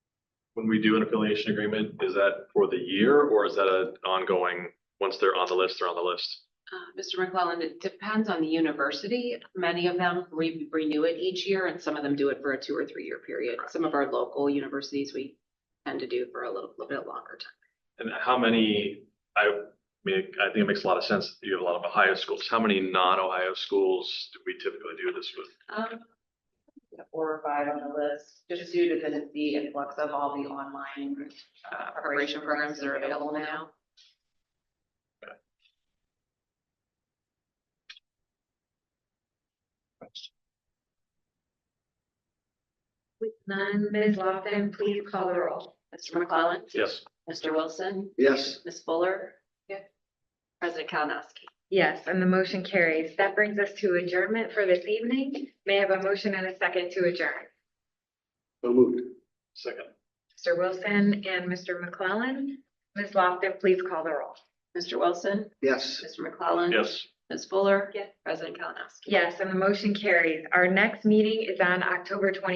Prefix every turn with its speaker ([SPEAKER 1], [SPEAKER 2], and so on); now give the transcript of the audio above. [SPEAKER 1] when we do an affiliation agreement, is that for the year or is that an ongoing, once they're on the list, they're on the list?
[SPEAKER 2] Uh, Mr. McClellan, it depends on the university. Many of them re- renew it each year and some of them do it for a two or three year period. Some of our local universities, we tend to do for a little, little bit longer time.
[SPEAKER 1] And how many, I mean, I think it makes a lot of sense that you have a lot of Ohio schools. How many non-Ohio schools do we typically do this with?
[SPEAKER 2] Um,
[SPEAKER 3] four or five on the list, just due to the, the influx of all the online.
[SPEAKER 2] uh, preparation programs that are available now.
[SPEAKER 4] With none, Ms. Lofton, please call the roll.
[SPEAKER 2] Mr. McClellan,
[SPEAKER 1] Yes,
[SPEAKER 2] Mr. Wilson,
[SPEAKER 5] Yes,
[SPEAKER 2] Ms. Fuller.
[SPEAKER 3] Yeah.
[SPEAKER 2] President Kalinowski.
[SPEAKER 4] Yes, and the motion carries. That brings us to adjournment for this evening. May I have a motion and a second to adjourn?
[SPEAKER 5] so moved.
[SPEAKER 1] second.
[SPEAKER 4] Mr. Wilson and Mr. McClellan. Ms. Lofton, please call the roll.
[SPEAKER 2] Mr. Wilson,
[SPEAKER 5] Yes.
[SPEAKER 2] Mr. McClellan.
[SPEAKER 1] Yes,
[SPEAKER 2] Ms. Fuller.
[SPEAKER 4] Yes.
[SPEAKER 2] President Kalinowski.
[SPEAKER 4] Yes, and the motion carries. Our next meeting is on October twenty.